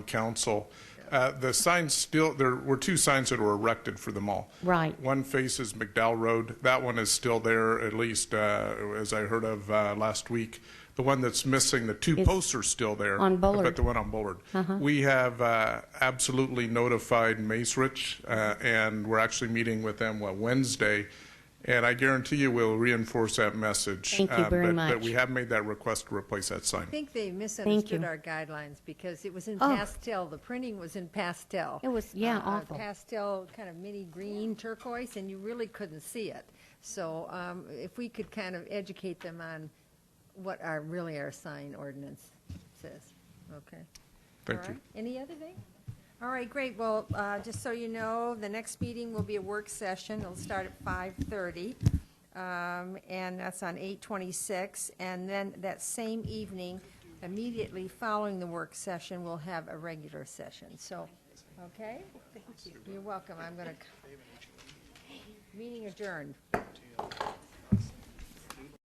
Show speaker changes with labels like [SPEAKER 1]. [SPEAKER 1] Council. Uh, The signs still, there were two signs that were erected for the mall.
[SPEAKER 2] Right.
[SPEAKER 1] One faces McDowell Road. That one is still there, at least uh, as I heard of uh, last week. The one that's missing, the two
[SPEAKER 2] Is
[SPEAKER 1] posts are still there.
[SPEAKER 2] on Bullard. Uh-huh.
[SPEAKER 1] But the one on Bullard. We have uh, absolutely notified Mace Rich, uh, and we're actually meeting with them, what, Wednesday? And I guarantee you we'll reinforce that message.
[SPEAKER 2] Thank you
[SPEAKER 1] uh,
[SPEAKER 2] very
[SPEAKER 1] but- But
[SPEAKER 2] much.
[SPEAKER 1] we have made that request to replace that sign.
[SPEAKER 3] I think they misunderstood
[SPEAKER 2] you.
[SPEAKER 3] our guidelines because it was in
[SPEAKER 2] Oh.
[SPEAKER 3] pastel. The printing was in pastel.
[SPEAKER 2] It was- yeah,
[SPEAKER 3] Uh,
[SPEAKER 2] awful.
[SPEAKER 3] Pastel, kind of mini green turquoise, and you really couldn't see it. So um, if we could kind of educate them on what our, really our sign ordinance says. Okay.
[SPEAKER 1] Thank
[SPEAKER 3] All
[SPEAKER 1] you.
[SPEAKER 3] right. Any other thing? All right, great. Well, uh, just so you know, the next meeting will be a work session. It'll start at 5:30, um, and that's on 8:26. And then that same evening, immediately following the work session, we'll have a regular session. So, okay? Thank you. You're welcome. I'm going to, meeting adjourned.